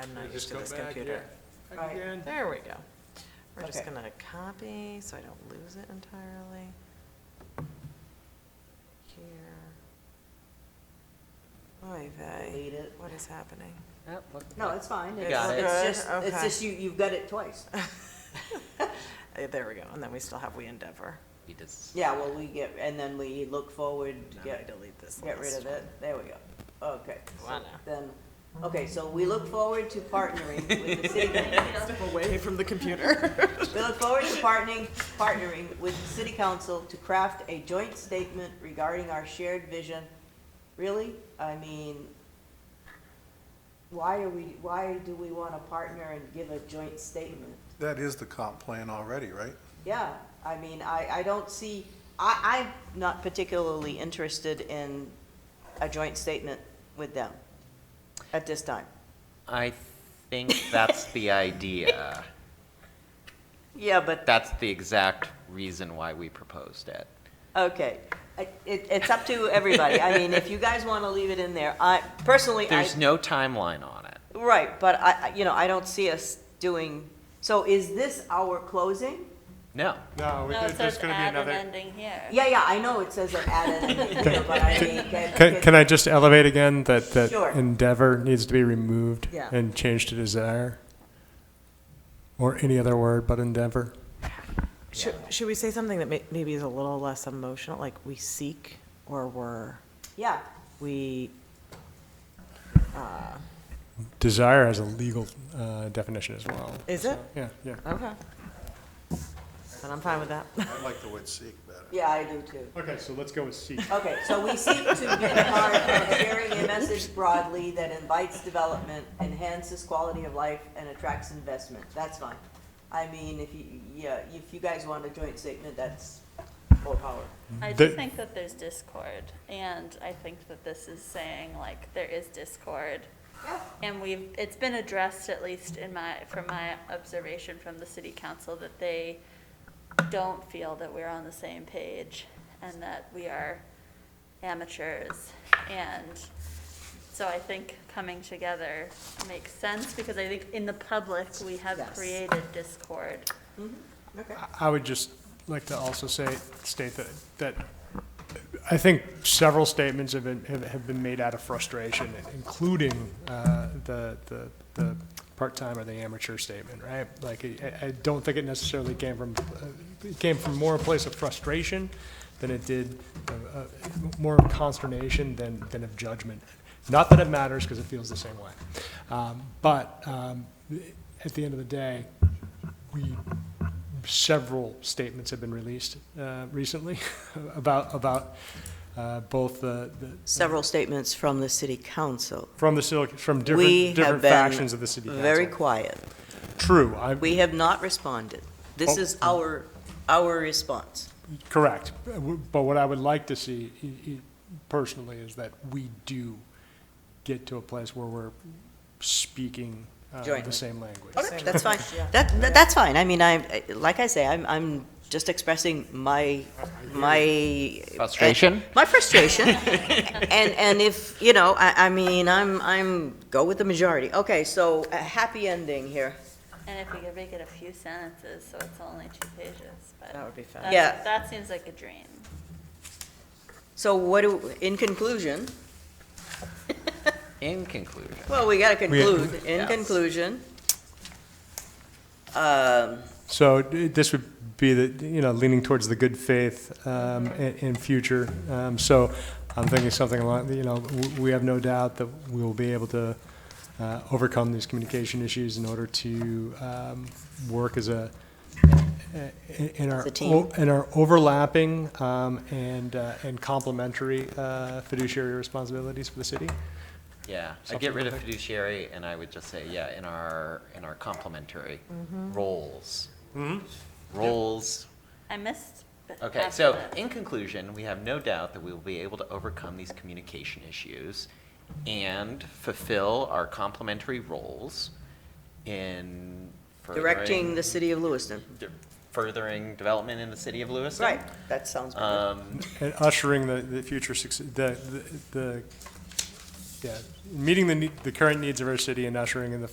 I'm not used Just to go this back, computer. yeah. Right. Again. There we go. We're just Okay. gonna copy, so I don't lose it entirely. Here. Oy vey, Delete it. what is happening? Yep, look- No, it's fine. It's- Got it. It's Good, just, it's okay. just you, you've got it twice. Eh, There we go, and then we still have we endeavor. He does. Yeah, well, we get, and then we look forward, Now I get, delete this get rid last of it. There we go. Okay. so Wow. Then, okay, so we look forward to partnering with the city. Away from the computer. We look forward to partnering, partnering with the city council to craft a joint statement regarding our shared vision. Really? I mean, why are we, why do we want to partner and give a joint statement? That is the comp plan already, right? Yeah, I mean, I, I don't see, I, I'm not particularly interested in a joint statement with them at this time. I think that's the idea. Yeah, but, That's the exact reason why we proposed it. okay, I- it, it's up to everybody. I mean, if you guys want to leave it in there, I, personally, I. There's no timeline on it. Right, but I, I- you know, I don't see us doing, so is this our closing? No. No, we- No, it there's says gonna be add an another. ending here. Yeah, yeah, I know it says an add ending here, but I mean, can. Can, can I just elevate again that, that Sure. endeavor needs to be removed Yeah. and changed to desire? Or any other word but endeavor? Should, should we say something that may, maybe is a little less emotional, like we seek, or we're, Yeah, we, Desire has a legal uh, definition as well. is it? Yeah, yeah. Okay. And I'm fine with that. I like the word seek better. yeah, I do too. Okay, so let's go with seek. Okay, so we seek to be a part of sharing a message broadly that invites development, enhances quality of life, and attracts investment. That's fine. I mean, if you, yeah, if you guys want a joint statement, that's more power. I do The- think that there's discord, and I think that this is saying, like, there is discord. Yeah. And we've, it's been addressed, at least in my, from my observation from the city council, that they don't feel that we're on the same page, and that we are amateurs. And so I think coming together makes sense, because I think in the public, we have Yes. created discord. Okay. I would just like to also say, state that, that I think several statements have been, have- have been made out of frustration, including uh, the, the, the part-time or the amateur statement, right? Like, I, I don't think it necessarily came from, uh, it came from more a place of frustration than it did, uh, uh, more of consternation than, than of judgment. Not that it matters, because it feels the same way. Um, But um, at the end of the day, we several statements have been released uh, recently about, about uh, both the, the- Several statements from the city council. from the, civil- from We different, have different been factions of the city very council. quiet. True, I, We have not responded. This Oh. is our, our response. correct. But what I would like to see i- i- personally is that we do get to a place where we're speaking uh, Jointly. the same language. That's fine. That, that- that's fine. I mean, I, like I say, I'm, I'm just expressing my, my. Frustration? My frustration. And, and if, you know, I, I mean, I'm, I'm, go with the majority. Okay, so a happy ending here. And if we could make it a few sentences, so it's only two pages, but. That would be fun. that- Yeah. That seems like a dream. So what do, in conclusion, In conclusion, well, we gotta conclude. In Yes. conclusion, um, So d- this would be the, you know, leaning towards the good faith um, in in future. Um, So I'm thinking something along, you know, w- we have no doubt that we will be able to uh, overcome these communication issues in order to um, work as a, in our, As a team. o- in our overlapping um, and uh, and complementary uh, fiduciary responsibilities for the city. yeah. I Something get rid of like that. fiduciary and I would just say, yeah, in our, in our complementary Mm-hmm. roles. Roles, I missed. but Okay, after so that. in conclusion, we have no doubt that we will be able to overcome these communication issues and fulfill our complementary roles in furthering. directing the city of Lewiston. de- Furthering development in the city of Lewiston. Right, that sounds better. Um, and ushering the, the future success, the, the- the, yeah, meeting the, ne- the current needs of our city and ushering in the